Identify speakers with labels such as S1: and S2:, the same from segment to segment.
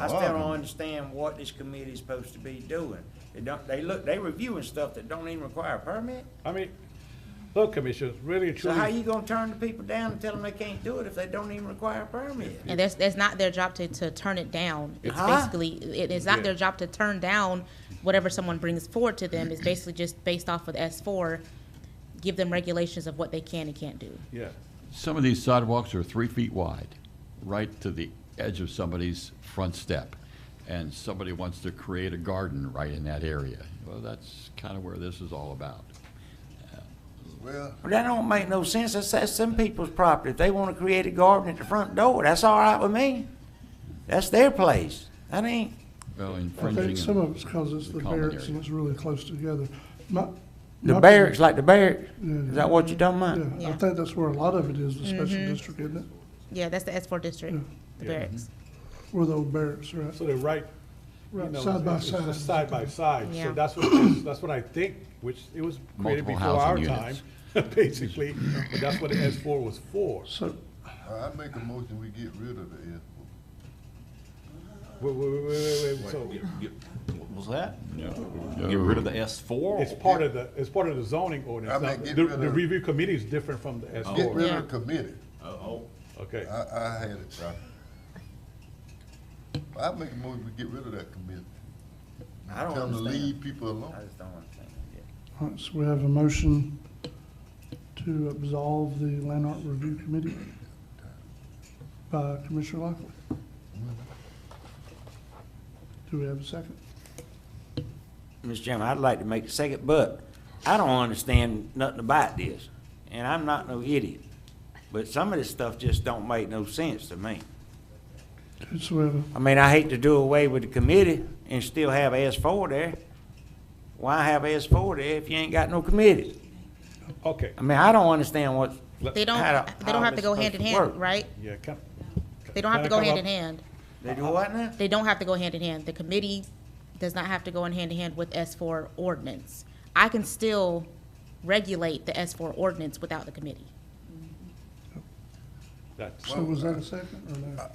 S1: I still don't understand what this committee's supposed to be doing. They don't, they look, they reviewing stuff that don't even require a permit?
S2: I mean, look, Commissioners, really and
S1: So how
S2: truly,
S1: you gonna turn the people down and tell them they can't do it if they don't even require a permit?
S3: And that's, that's not their job to, to turn it down. It's
S1: Huh?
S3: basically, it is
S2: Uh-huh. Yeah.
S3: not their job to turn down whatever someone brings forward to them. It's basically just based off of S four, give them regulations of what they can and can't do.
S2: yeah.
S4: Some of these sidewalks are three feet wide, right to the edge of somebody's front step. And somebody wants to create a garden right in that area. Well, that's kind of where this is all about.
S5: Well,
S1: Well, That don't make no sense. That's, that's some people's property. If they wanna create a garden at the front door, that's all right with me. That's their place. That ain't,
S4: Well,
S6: I
S4: infringing.
S6: think some
S4: in
S6: of it's because it's
S4: the
S6: the
S4: common
S6: barracks
S4: area.
S6: and it's really close together. My-
S1: the
S6: my-
S1: barracks, like the barracks.
S6: Yeah.
S1: Is that what you talking about?
S6: Yeah, I
S3: Yeah.
S6: think that's where a lot of it is, the special district, isn't it?
S3: Yeah, that's the S four district, the
S2: Mm. Yeah. Mm-hmm.
S3: barracks.
S6: Where the old barracks are at.
S2: So they're right, you
S6: Right,
S2: know,
S6: side by
S2: it's- it's
S6: side.
S2: just Side by side, so
S3: Yeah.
S2: that's what, it is. that's what I think, which it was created
S4: Multiple
S2: before our
S4: housing
S2: time,
S4: units.
S2: basically, but that's what the S four was for.
S6: So,
S5: Uh, I make a motion, we get rid of the S four.
S2: Wait, wait, wait, wait, wait, wait, so
S7: What was that? Get rid of the S four?
S2: it's part of the, it's part of the zoning
S5: I
S2: ordinance.
S5: mean,
S2: Now,
S5: get
S2: The,
S5: rid of-
S2: the review committee is different from the S
S5: Get
S2: four,
S5: rid of the committee.
S7: Oh,
S2: okay.
S5: I, I had it right. I make a motion, we get rid of that committee.
S1: I don't
S5: Tell them to leave
S1: understand.
S5: people
S1: I
S5: alone.
S1: just don't understand.
S6: all right, so we have a motion to absolve the Land Art Review Committee by Commissioner Lockley. Do we have a second?
S1: Mr. Chairman, I'd like to make a second, but I don't understand nothing about this, and I'm not no idiot. But some of this stuff just don't make no sense to me.
S6: So we have a
S1: I mean, I hate to do away with the committee and still have S four there. Why have S four there if you ain't got no committee?
S2: Okay,
S1: I mean, I don't understand what.
S3: They don't,
S1: how
S3: they
S1: how
S3: don't have to
S1: this
S3: go hand in
S1: supposed work.
S3: hand, right?
S2: yeah, come.
S3: They don't have to
S2: Can I come
S3: go
S2: up?
S3: hand in hand.
S1: They do what now?
S3: They don't have to go hand in hand. The committee does not have to go in hand in hand with S four ordinance. I can still regulate the S four ordinance without the committee.
S2: That's,
S6: So was that a second or no?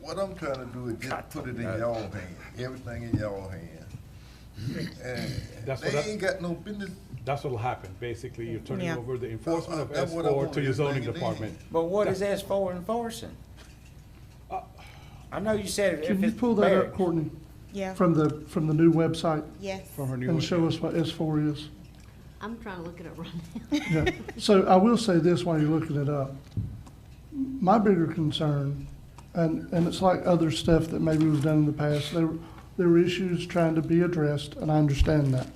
S5: What I'm trying to do is just put it in y'all hand, everything in y'all hand. And
S2: That's what
S5: they
S2: I-
S5: ain't got no business.
S2: that's what'll happen, basically, you're turning
S3: Yeah.
S2: over the enforcement of S
S5: That's what I
S2: four
S5: want,
S2: to your zoning
S5: everything it
S2: department.
S1: But what is S four enforcing? I know you said if
S6: Uh, Can you
S1: it's
S6: pull that up,
S1: barracks.
S6: Courtney,
S3: Yeah.
S6: from the, from the new website
S3: Yes.
S2: From her new.
S6: and show us what S four is?
S8: I'm trying to look it up right now.
S6: Yeah, so I will say this while you're looking it up. My bigger concern, and, and it's like other stuff that maybe was done in the past, there, were- there were issues trying to be addressed, and I understand that.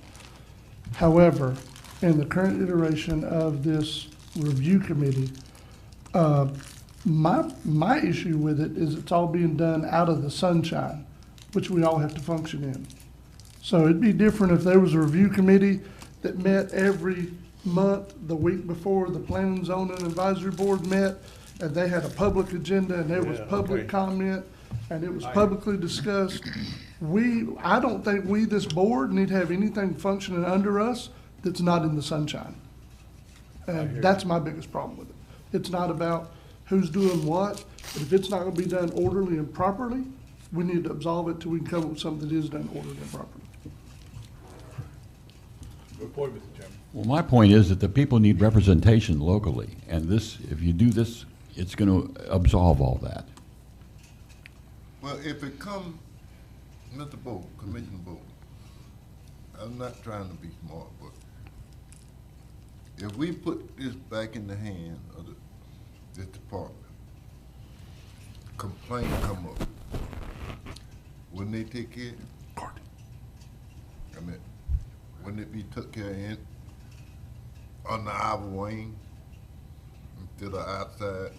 S6: However, in the current iteration of this review committee, uh, my, my issue with it is it's all being done out of the sunshine, which we all have to function in. So it'd be different if there was a review committee that met every month, the week before the planning zoning advisory board met, and they had a public agenda, and there was
S2: Yeah,
S6: public
S2: okay.
S6: comment, and it was publicly discussed. We, I don't think we, this board, need to have anything functioning under us that's not in the sunshine. And that's my biggest problem with it. It's not about who's doing what, but if it's not gonna be done orderly and properly, we need to absolve it till we can come up with something that is done orderly and properly.
S2: Report, Mr. Chairman.
S4: Well, my point is that the people need representation locally, and this, if you do this, it's going to absolve all that.
S5: Well, if it come, Mr. Bo, Commissioner Bo, I'm not trying to be smart, but if we put this back in the hand of the, this department, complaint come up, wouldn't they take care? I mean, wouldn't it be took care in, on the our wing, instead of outside?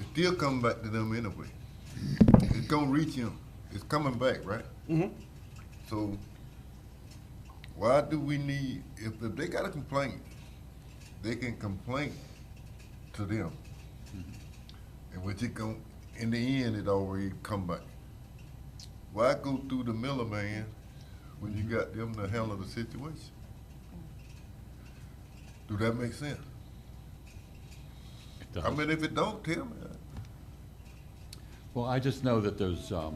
S5: It still come back to them anyway. It's gonna reach him. It's coming back, right? Mm-hmm. So why do we need if, if they got a complaint, they can complain to them. And which it gon' in the end it already come back. Why go through the miller man when you got them to handle the situation? Do that make sense?
S4: Uh-huh.
S5: I mean, if it don't, tell me.
S4: Well, I just know that there's, um,